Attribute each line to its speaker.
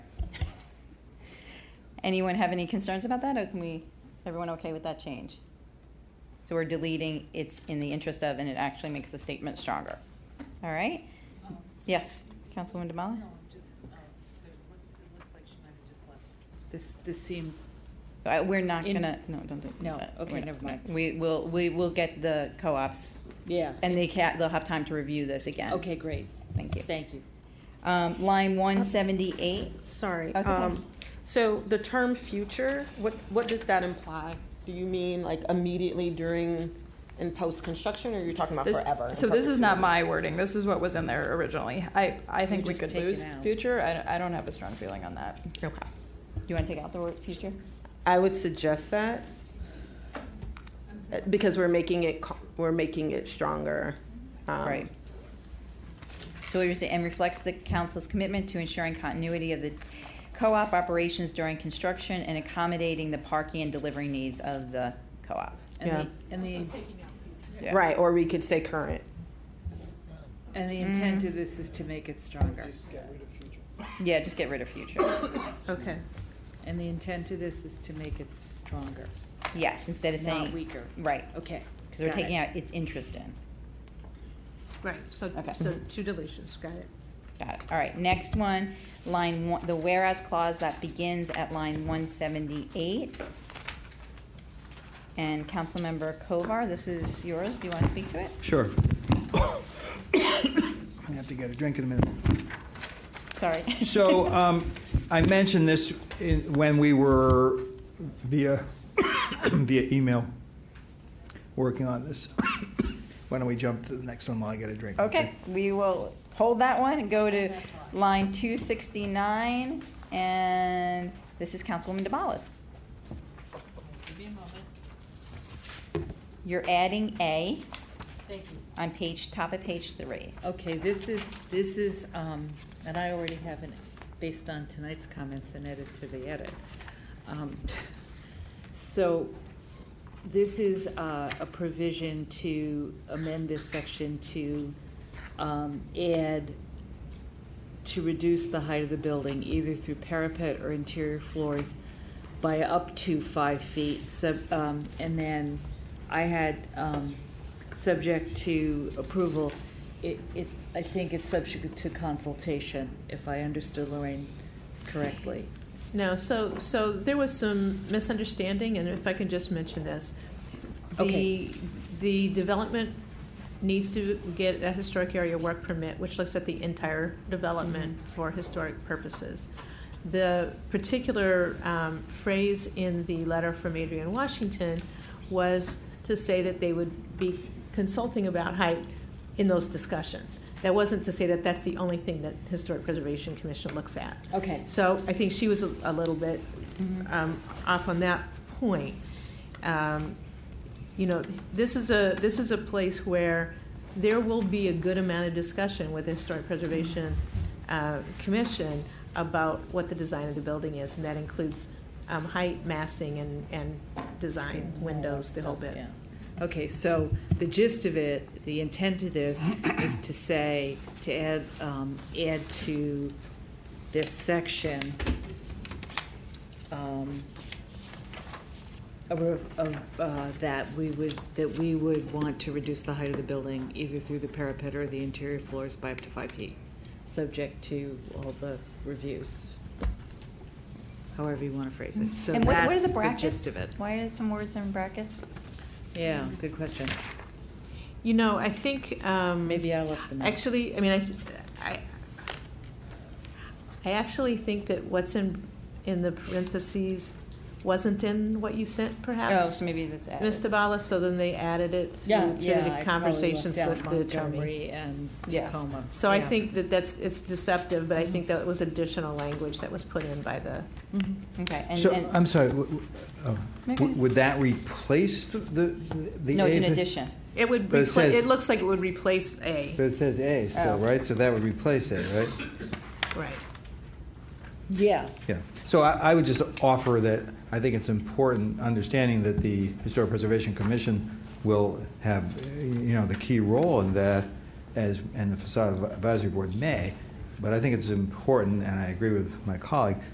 Speaker 1: Anyone have any concerns about that, or can we, everyone okay with that change? So we're deleting it's in the interest of, and it actually makes the statement stronger. All right?
Speaker 2: Um,
Speaker 1: Yes, Councilwoman
Speaker 2: No,
Speaker 1: Damali?
Speaker 2: just, um, so it looks, it looks like she might have just left. This, this seemed,
Speaker 1: Uh, We're not
Speaker 2: In-
Speaker 1: gonna, no, don't do that.
Speaker 2: No,
Speaker 1: We're
Speaker 2: okay,
Speaker 1: not-
Speaker 2: never mind.
Speaker 1: no. We will, we will get the co-ops,
Speaker 2: yeah.
Speaker 1: and they can, they'll have time to review this again.
Speaker 2: Okay, great.
Speaker 1: Thank you.
Speaker 2: Thank you.
Speaker 1: Um, line one seventy-eight,
Speaker 3: Sorry.
Speaker 1: Oh, it's okay.
Speaker 3: um, So the term future, what, what does that imply? Do you mean like immediately during and post-construction, or you're talking about
Speaker 4: This-
Speaker 3: forever? in
Speaker 4: So this is not
Speaker 3: perpetuity?
Speaker 4: my wording. This is what was in there originally. I, I think we
Speaker 2: just
Speaker 4: could
Speaker 2: take it
Speaker 4: lose
Speaker 2: out.
Speaker 4: future. I, I don't have a strong feeling on that.
Speaker 3: Okay.
Speaker 1: do you wanna take out the word future?
Speaker 3: I would suggest that uh, because we're making it, co- we're making it stronger. um,
Speaker 1: Right. So what you're saying, and reflects the council's commitment to ensuring continuity of the co-op operations during construction and accommodating the parking and delivery needs of the co-op.
Speaker 2: And
Speaker 3: Yeah.
Speaker 2: the- And the,
Speaker 1: Yeah.
Speaker 3: Right, or we could say current.
Speaker 2: and the
Speaker 1: Mm-hmm.
Speaker 2: intent of this is to make it stronger.
Speaker 1: Yeah, just get rid of future.
Speaker 3: Okay.
Speaker 2: And the intent of this is to make it stronger,
Speaker 1: Yes, instead of saying.
Speaker 2: not weaker.
Speaker 1: Right,
Speaker 2: Okay.
Speaker 1: because we're
Speaker 2: got it.
Speaker 1: taking out its interest in.
Speaker 5: Right, so,
Speaker 1: Okay.
Speaker 5: so two deletions, got it.
Speaker 1: Got it. All right, next one, line one, the whereas clause that begins at line one seventy-eight. And Councilmember Kovar, this is yours. Do you want to speak to it?
Speaker 6: Sure. I have to get a drink in a minute.
Speaker 1: Sorry.
Speaker 6: So um, I mentioned this in, when we were via via email working on this. Why don't we jump to the next one while I get a drink?
Speaker 1: Okay, we will hold that one and go to line two sixty-nine, and this is Councilwoman DeBalas.
Speaker 2: Give me a moment.
Speaker 1: You're adding A
Speaker 2: Thank you.
Speaker 1: on page, top of page three.
Speaker 2: Okay, this is, this is, um, and I already have an, based on tonight's comments, an edit to the edit. Um, So, this is uh, a provision to amend this section to um, add, to reduce the height of the building, either through parapet or interior floors, by up to five feet. So, um, and then I had, um, subject to approval, it, it, I think it's subject to consultation, if I understood Lorraine correctly.
Speaker 5: No, so, so there was some misunderstanding, and if I can just mention this.
Speaker 2: Okay.
Speaker 5: The, the development needs to get a historic area work permit, which looks at the entire development for historic purposes. The particular um, phrase in the letter from Adrian Washington was to say that they would be consulting about height in those discussions. That wasn't to say that that's the only thing that Historic Preservation Commission looks at.
Speaker 2: Okay.
Speaker 5: So I think she was a, a little bit
Speaker 2: Mm-hmm.
Speaker 5: um, off on that point. Um, you know, this is a this is a place where there will be a good amount of discussion with the Historic Preservation uh, Commission about what the design of the building is, and that includes um, height, massing, and and design, windows, the whole bit.
Speaker 2: Yeah. Okay, so the gist of it, the intent of this is to say, to add, um, add to this section, um, a ref- of, uh, that we would, that we would want to reduce the height of the building either through the parapet or the interior floors by up to five feet, subject to all the reviews. However you want to phrase it. So
Speaker 1: And what, what are
Speaker 2: that's
Speaker 1: the
Speaker 2: gist
Speaker 1: brackets?
Speaker 2: of it.
Speaker 1: Why are some words in brackets?
Speaker 2: Yeah, good question.
Speaker 5: You know, I think um,
Speaker 2: Maybe I left them out.
Speaker 5: Actually, I mean, I, th- I, I actually think that what's in, in the parentheses wasn't in what you sent,
Speaker 1: Oh,
Speaker 5: perhaps,
Speaker 1: so maybe that's added.
Speaker 5: Ms. Tabala, so then they added it
Speaker 2: Yeah,
Speaker 5: through, through
Speaker 2: yeah.
Speaker 5: the conversations with the attorney.
Speaker 2: and
Speaker 1: Yeah.
Speaker 2: Tacoma.
Speaker 5: So I
Speaker 2: Yeah.
Speaker 5: think that that's, it's deceptive, but I think that was additional language that was put in by the,
Speaker 2: Mhm.
Speaker 1: Okay, and,
Speaker 6: So,
Speaker 1: and,
Speaker 2: um,
Speaker 6: I'm sorry, w- w- oh,
Speaker 1: Maybe-
Speaker 6: w- would that replace the, the? the
Speaker 1: no, it's an
Speaker 6: A?
Speaker 1: addition.
Speaker 5: it would,
Speaker 6: But it
Speaker 5: repla-
Speaker 6: says-
Speaker 5: it looks like it would replace A,
Speaker 6: But it says A
Speaker 1: Oh.
Speaker 6: still, right? So that would replace it, right?
Speaker 5: right.
Speaker 2: Yeah,
Speaker 6: Yeah, so I, I would just offer that, I think it's important, understanding that the Historic Preservation Commission will have, eh, you know, the key role in that, as, and the facade advisory board may, but I think it's important, and I agree with my colleague,